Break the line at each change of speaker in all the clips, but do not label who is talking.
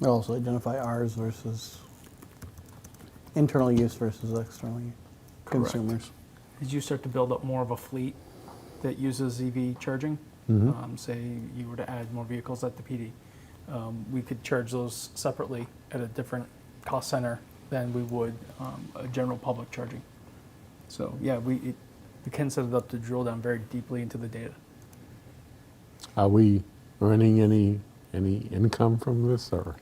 They'll Also identify ours versus internal use versus external use.
Correct.
consumers.
As you start to build up more of a fleet that uses EV charging,
Mm-hmm.
um, say you were to add more vehicles at the PD, um, we could charge those separately at a different cost center than we would um, a general public charging. So yeah, we it, we can set it up to drill down very deeply into the data.
Are we earning any, any income from this or?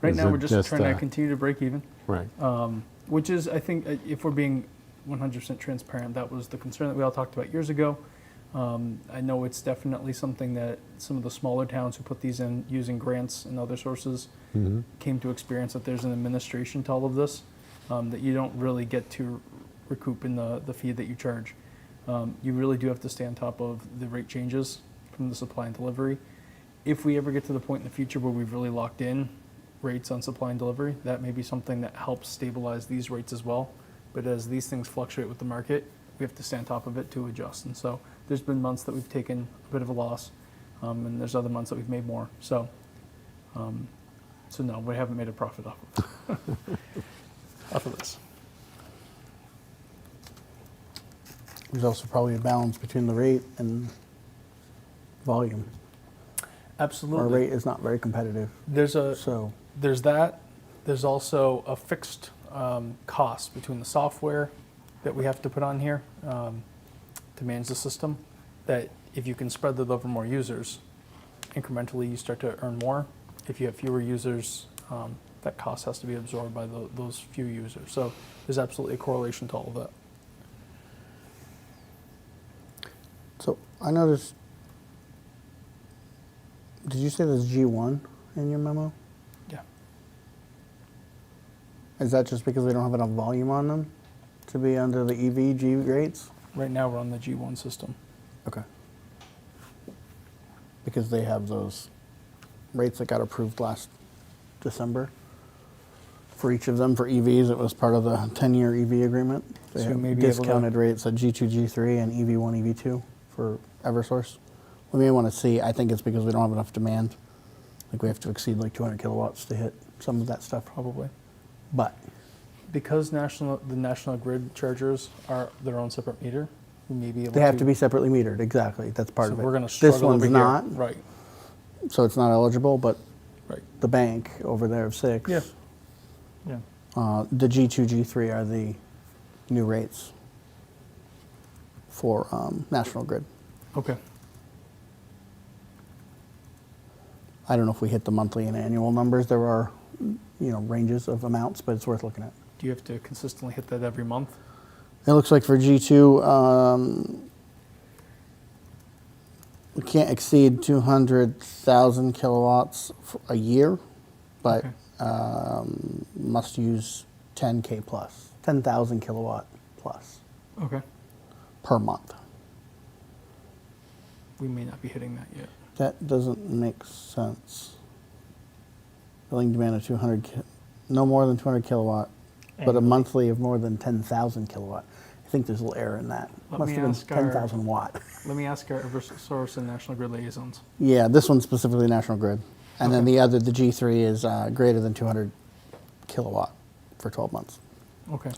Right
Is
now,
it
we're just,
just,
trying
uh,
to continue to break even.
Right,
Uh, Um, which is i think uh, if we're being 100% transparent that was the concern that we all talked about years ago um, i know it's definitely something that some of the smaller towns who put these in using grants and other sources
Mm-hmm.
came to experience that there's an administration to all of this um, that you don't really get to recoup in the, the fee that you charge um, you really do have to stay on top of the rate changes from the supply and delivery if we ever get to the point in the future where we've really locked in rates on supply and delivery, that may be something that helps stabilize these rates as well. But as these things fluctuate with the market, we have to stay on top of it to adjust. And so there's been months that we've taken a bit of a loss, um, and there's other months that we've made more. So, um, so no, we haven't made a profit off of, off of this.
There's also probably a balance between the rate and volume. Our
Absolutely.
rate is not very competitive,
There's a
so
there's that. There's also a fixed um, cost between the software that we have to put on here um, to manage the system. That if you can spread that over more users, incrementally you start to earn more. If you have fewer users, um, that cost has to be absorbed by tho- those few users. So there's absolutely a correlation to all of that.
so I noticed. Did you say there's G one in your memo?
Yeah.
Is that just because they don't have enough volume on them to be under the EV G rates?
Right now we're on the G1 system.
Okay. Because they have those rates that got approved last December. For each of them, for EVs, it was part of the 10-year EV agreement. They
So
have
maybe able to-
discounted rates at G2, G3, and E EV1, EV2 for Eversource. We may want to see, I think it's because we don't have enough demand. Like, we have to exceed like 200 kilowatts to hit some of that stuff,
Probably.
but
Because national the national grid chargers are their own separate meter, we may be able
they have
to
to be separately metered, exactly, that's part
so
of it.
we're going to struggle
This one's
over
not,
here. Right,
so it's not eligible, but
right.
the bank over there of six.
Yeah. Yeah.
Uh, the G2, G3 are the new rates for um, National Grid.
Okay.
I don't know if we hit the monthly and annual numbers. There are, you know, ranges of amounts, but it's worth looking at.
Do you have to consistently hit that every month?
It looks like for G2, um, we can't exceed 200,000 kilowatts f- a year, but
Okay.
um, must use 10K plus, 10,000 kilowatt plus
Okay.
per month.
We may not be hitting that yet.
That doesn't make sense. Billing demand of 200, ki- no more than 200 kilowatt, but a
Annually.
monthly of more than 10,000 kilowatt. I think there's a little error in that.
Let
Must
me
have been
ask our-
10,000 watt.
Let me ask our Eversource and National Grid liaisons.
Yeah, this one's specifically National Grid. And then
Okay.
the other, the G3 is uh, greater than 200 kilowatt for 12 months.
Okay.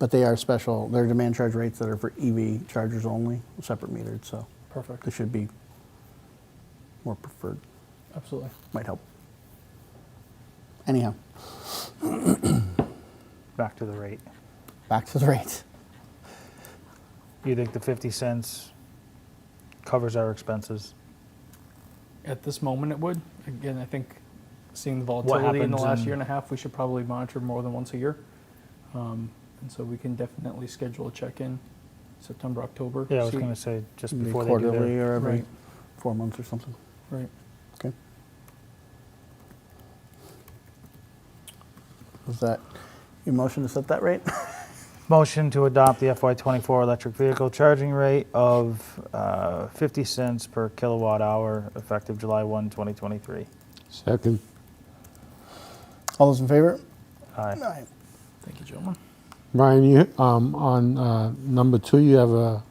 But they are special, they're demand charge rates that are for EV chargers only, separate metered, so
Perfect.
they should be more preferred,
Absolutely.
might help. Anyhow.
back to the rate.
Back to the rates.
You think the 50 cents covers our expenses?
At this moment, it would. Again, I think seeing the volatility in the
happens
last
in-
year and a half, we should probably monitor more than once a year. Um, and so we can definitely schedule a check-in September, October.
Yeah, I was
see-
going to say just
Maybe
before they do
quarterly
their,
or every
Right.
four months or something.
Right.
Okay. Was that your motion to set that rate?
motion to adopt the FY24 electric vehicle charging rate of uh, 50 cents per kilowatt hour effective July 1, 2023.
second,
All those in favor?
Aye.
Aye.
Thank you, gentlemen.
Brian, you, um, on, uh, number two, you have a